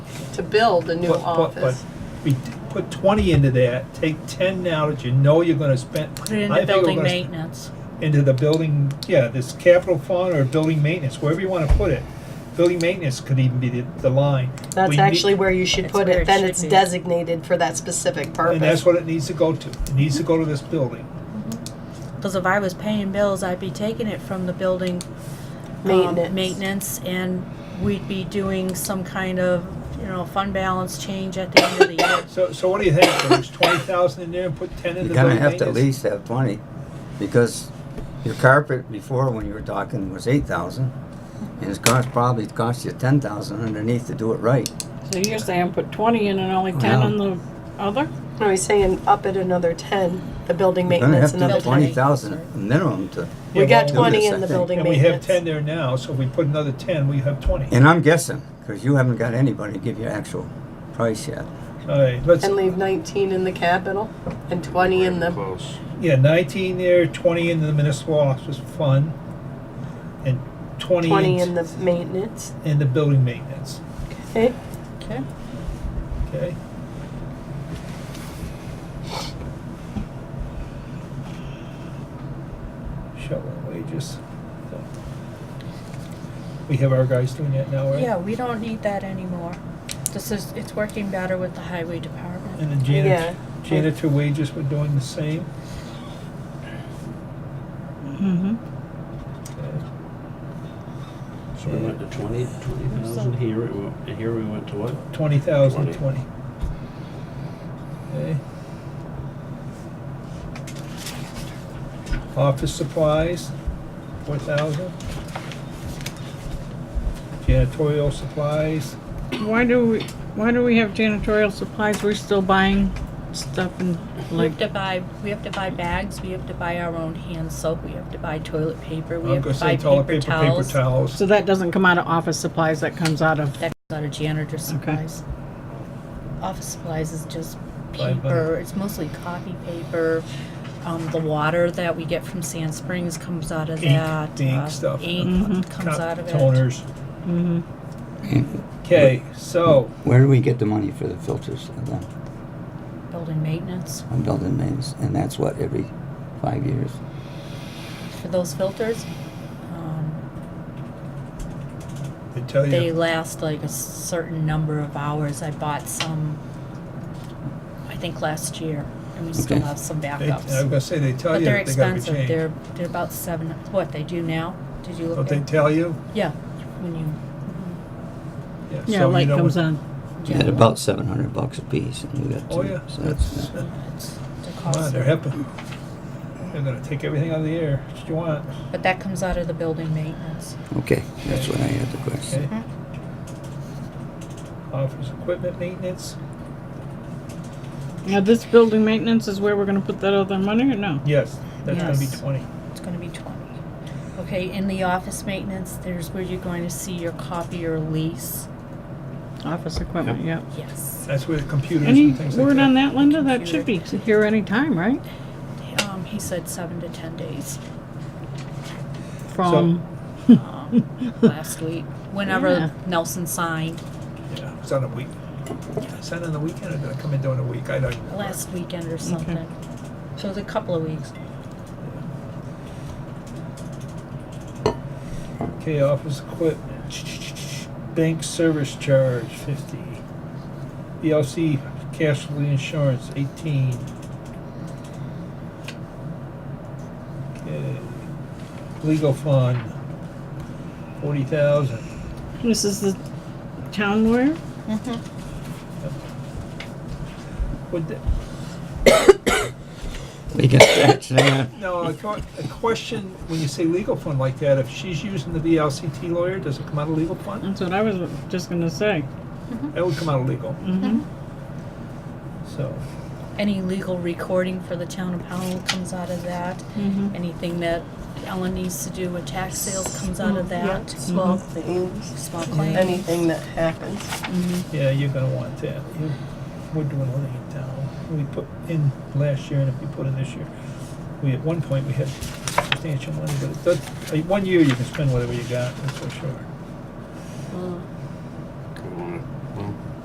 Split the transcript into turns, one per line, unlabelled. to build a new
But- but- but
office.
we d- Put twenty into that, take ten now that you know you're gonna spend.
Put it
I
into
think we're
building
gonna sp-
maintenance.
Into the building, yeah, this capital fund or building maintenance, wherever you wanna put it. Building maintenance could even be the, the line. We
That's
need-
actually where you should
That's
put
where
it,
it
then
should
it's
be.
designated for that specific purpose.
And that's what it needs to go to. It needs to go to this building.
Because if I was paying bills, I'd be taking it from the building um,
Maintenance.
maintenance, and we'd be doing some kind of, you know, fund balance change at the end of the year.
So, so what do you think? There's twenty thousand in there and put ten in the
You're
building
gonna
maintenance?
have to at least have twenty, because your carpet before, when you were talking, was eight thousand. And it's cost, probably cost you ten thousand underneath to do it right.
So you're saying put twenty in and only ten in the other?
Are we saying up at another ten, the building
You're gonna
maintenance
have to
another
have
ten?
twenty thousand minimum to,
We
Yeah,
got
well,
do
twenty
this,
in
I
the
think.
building
And we have
maintenance.
ten there now, so if we put another ten, we have twenty.
and I'm guessing, cause you haven't got anybody to give you actual price yet.
All right, let's,
And leave nineteen in the capital and twenty in the,
Close.
yeah, nineteen there, twenty in the municipal office fund, and twenty
twenty in
in,
the maintenance,
in the building maintenance,
okay?
Okay.
okay? Shoveling wages. so. We have our guys doing that now, right?
Yeah, we don't need that anymore. This is, it's working better with the highway department.
And the
Yeah.
janitor, janitor wages were doing the same.
Mm-hmm.
okay?
So we went to twenty, twenty thousand here, it went- and here we went to what?
Twenty thousand,
Twenty.
twenty. Okay. Office supplies, four thousand. Janitorial supplies,
Why do we, why do we have janitorial supplies? We're still buying stuff and
We
like,
have to buy, we have to buy bags, we have to buy our own hand soap, we have to buy toilet paper, we
I'm
have
gonna
to buy
say toilet
paper
paper, paper
towels.
towels.
so that doesn't come out of office supplies, that comes out of,
That comes out of janitor supplies. Office supplies is just
Buy back.
paper, it's mostly copy paper. Um, the water that we get from Sand Springs comes out of
Ink,
that.
the ink
uh,
stuff.
Ink comes out of it.
Toners. Okay, so,
Where do we get the money for the filters then,
Building maintenance
on building mains, and that's what, every five years?
for those filters. Um,
I tell you.
they last like a certain number of hours. I bought some, I think last year, and we still
Okay.
have some
They, I was
backups.
gonna say, they tell
But
you
they're
that they gotta be
expensive. They're,
changed.
they're about seven, what, they do now? Did you
Don't
look
they
at?
tell you?
Yeah, when you
yeah, um,
so you
light
know
comes
what-
on.
At about seven hundred bucks a piece, and we got two.
Oh, yeah.
So that's,
That's-
It's the
Come on,
cost.
they're helping. They're gonna take everything out of the air. What you want?
But that comes out of the building maintenance.
okay, that's what I had the question.
Okay. Office equipment maintenance?
Now, this building maintenance is where we're gonna put that other money or no?
Yes, that's gonna be
Yes.
twenty.
It's gonna be twenty. Okay, in the office maintenance, there's where you're going to see your copier lease.
Office equipment, yeah.
Yes.
That's where the computers
Any
and things like
word on
that.
that, Linda? That should be here any time, right?
Um, he said seven to ten days,
From,
um, last week, whenever
Yeah.
Nelson signed,
Yeah, It's on a week. It's on on the weekend, or did it come in during the week? I don't. remember.
last weekend or something. So it was a couple of weeks.
Okay, office equipment. Bank service charge, fifty. E BLC casualty insurance, eighteen. Okay. Legal fund, forty thousand.
this is the town lawyer?
Would, th-
We got that, Sam.
now, a que- a question, when you say legal fund like that, if she's using the VLCT lawyer, does it come out of legal fund?
That's what I was just gonna say.
That would come out of legal,
Mm-hmm.
so.
Any legal recording for the town of Powell comes out of that.
Mhm.
Anything that Ellen needs to do with tax sales comes out of
Yeah,
that.
Small things,
Small claims.
anything that happens.
Yeah, you're gonna want that. You- We're doing a lane down. We put in last year and if we put in this year, we, at one point, we had substantial money, but it does, uh, one year you can spend whatever you got, that's for sure.
Well,